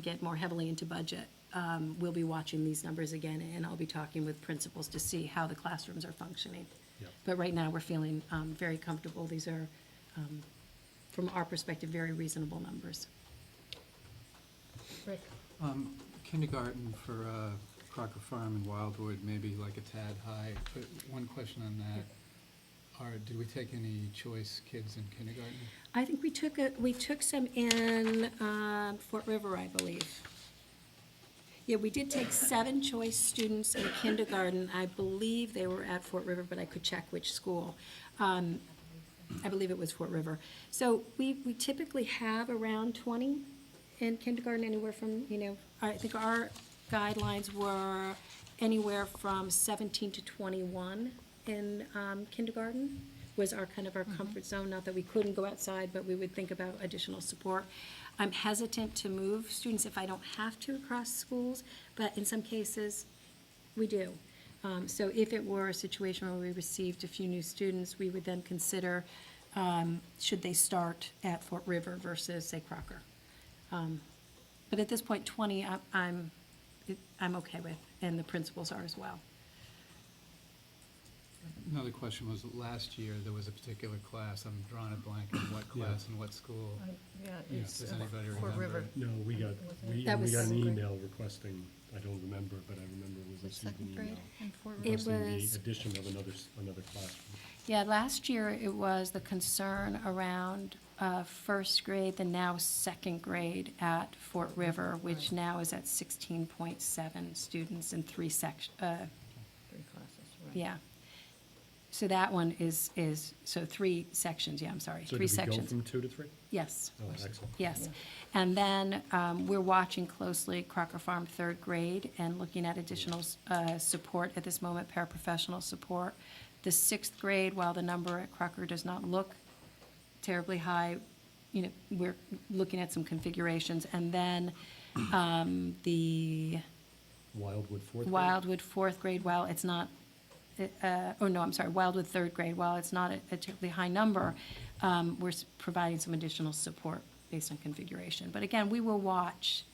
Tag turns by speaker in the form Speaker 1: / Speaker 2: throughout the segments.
Speaker 1: get more heavily into budget, um, we'll be watching these numbers again, and I'll be talking with principals to see how the classrooms are functioning.
Speaker 2: Yep.
Speaker 1: But right now, we're feeling um, very comfortable. These are, um, from our perspective, very reasonable numbers.
Speaker 3: Rick,
Speaker 2: Kindergarten for uh, Crocker Farm and Wildwood, maybe like a tad high, but one question on that. Are, did we take any choice kids in kindergarten?
Speaker 1: I think we took, a- we took some in um, Fort River, I believe. Yeah, we did take seven choice students in kindergarten. I believe they were at Fort River, but I could check which school. Um, I believe it was Fort River. So we we typically have around 20 in kindergarten, anywhere from, you know, I think our guidelines were anywhere from 17 to 21 in um, kindergarten was our, kind of our comfort zone, not that we couldn't go outside, but we would think about additional support. I'm hesitant to move students if I don't have to across schools, but in some cases, we do. Um, So if it were a situation where we received a few new students, we would then consider, um, should they start at Fort River versus, say, Crocker? Um, But at this point, 20, I- I'm, it- I'm okay with, and the principals are as well.
Speaker 2: Another question was, last year, there was a particular class, I'm drawing a blank on what class and what school.
Speaker 3: I- yeah,
Speaker 4: Yeah,
Speaker 3: it's
Speaker 2: does
Speaker 3: uh,
Speaker 2: anybody
Speaker 3: Fort
Speaker 2: remember?
Speaker 3: River.
Speaker 4: No, we got, we,
Speaker 1: That
Speaker 4: and we
Speaker 1: was
Speaker 4: got an
Speaker 3: second grade.
Speaker 4: email requesting, I don't remember, but I remember we received an
Speaker 3: Second grade
Speaker 4: email
Speaker 3: and Fort River.
Speaker 1: It
Speaker 4: requesting
Speaker 1: was-
Speaker 4: the addition of another, s- another classroom.
Speaker 1: Yeah, last year it was the concern around uh, first grade, the now second grade at Fort River, which now is at 16.7 students in three uh, sections,
Speaker 3: Three classes, right.
Speaker 1: Yeah. So that one is, is, so three sections, yeah, I'm sorry,
Speaker 4: So
Speaker 1: three
Speaker 4: did we go
Speaker 1: sections.
Speaker 4: from two to three?
Speaker 1: Yes,
Speaker 4: Oh, excellent.
Speaker 1: yes. And then um, we're watching closely Crocker Farm third grade and looking at additional uh, support at this moment, paraprofessional support. The sixth grade, while the number at Crocker does not look terribly high, you know, we're looking at some configurations. And then um, the
Speaker 4: Wildwood fourth grade?
Speaker 1: Wildwood fourth grade, while it's not, uh, oh, no, I'm sorry, Wildwood third grade, while it's not a a terribly high number, um, we're s- providing some additional support based on configuration. But again, we will watch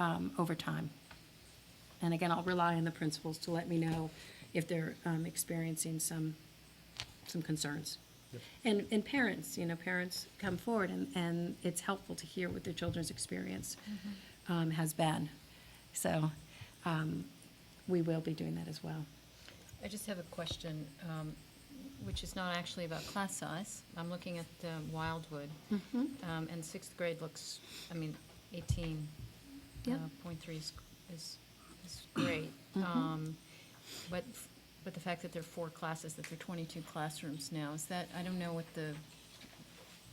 Speaker 1: um, over time. And again, I'll rely on the principals to let me know if they're um, experiencing some, some concerns.
Speaker 4: Yep.
Speaker 1: And, and parents, you know, parents come forward and, and it's helpful to hear what their children's experience
Speaker 3: Mm-hmm.
Speaker 1: um, has been. So um, we will be doing that as well.
Speaker 3: I just have a question, um, which is not actually about class size. I'm looking at uh, Wildwood,
Speaker 1: Mm-hmm.
Speaker 3: um, and sixth grade looks, I mean, eighteen uh,
Speaker 1: Yeah. Mm-hmm.
Speaker 3: point three is, is, is great. Um, But, f- but the fact that there are four classes, that there are twenty-two classrooms now, is that, I don't know what the,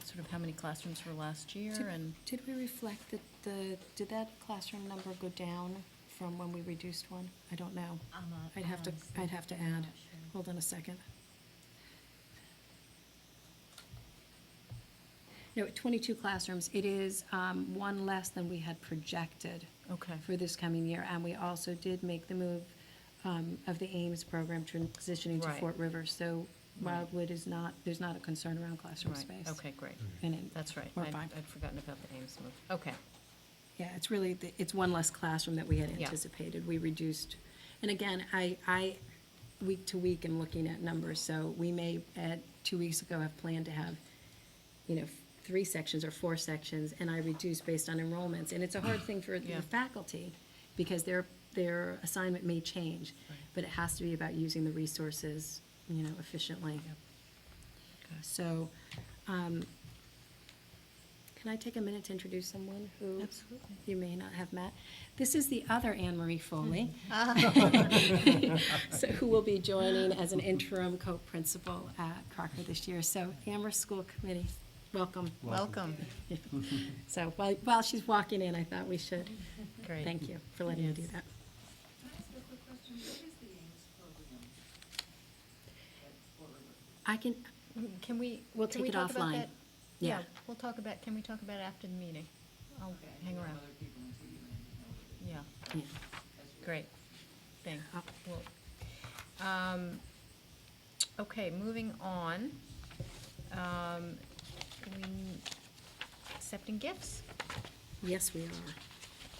Speaker 3: sort of how many classrooms were last year
Speaker 1: Did-
Speaker 3: and.
Speaker 1: Did we reflect that the, did that classroom number go down from when we reduced one? I don't know.
Speaker 5: I'm not-
Speaker 1: I'd have to,
Speaker 5: honestly,
Speaker 1: I'd have to
Speaker 5: I'm
Speaker 1: add.
Speaker 5: not sure.
Speaker 1: Hold on a second. No, at 22 classrooms, it is um, one less than we had projected
Speaker 3: Okay.
Speaker 1: for this coming year. And we also did make the move um, of the Ames program transitioning to
Speaker 3: Right.
Speaker 1: Fort River. So
Speaker 3: Right.
Speaker 1: Wildwood is not, there's not a concern around classroom
Speaker 3: Right,
Speaker 1: space.
Speaker 3: okay, great.
Speaker 1: And it-
Speaker 3: That's right.
Speaker 1: We're
Speaker 3: I'd-
Speaker 1: fine.
Speaker 3: I'd forgotten about the Ames move. Okay,
Speaker 1: Yeah, it's really, the- it's one less classroom that we had
Speaker 3: Yeah.
Speaker 1: anticipated. We reduced, and again, I, I, week to week, am looking at numbers, so we may, at, two weeks ago, have planned to have, you know, three sections or four sections, and I reduce based on enrollments. And it's a hard thing for
Speaker 3: Yeah.
Speaker 1: the faculty, because their, their assignment may change,
Speaker 3: Right.
Speaker 1: but it has to be about using the resources, you know, efficiently.
Speaker 3: Okay.
Speaker 1: So, um, can I take a minute to introduce someone who
Speaker 3: Absolutely.
Speaker 1: you may not have met? This is the other Anne Marie Foley. So who will be joining as an interim co-principal at Crocker this year. So Amherst School Committee, welcome.
Speaker 3: welcome.
Speaker 1: So while, while she's walking in, I thought we should,
Speaker 3: Great.
Speaker 1: thank you for letting me do
Speaker 3: Yes.
Speaker 5: Can
Speaker 1: that.
Speaker 5: I ask a quick question? What is the Ames program?
Speaker 1: I can,
Speaker 3: Mm, Can we?
Speaker 1: We'll
Speaker 3: can
Speaker 1: take
Speaker 3: we
Speaker 1: it
Speaker 3: talk about
Speaker 1: offline.
Speaker 3: that?
Speaker 1: Yeah.
Speaker 3: Yeah, we'll talk about, can we talk about it after the meeting? I'll hang around.
Speaker 5: Other people until you land know what it is.
Speaker 1: yeah.
Speaker 3: Yeah, great. Thank,
Speaker 1: Uh,
Speaker 3: well, um, okay, moving on. Um, we, accepting gifts.
Speaker 1: yes, we are.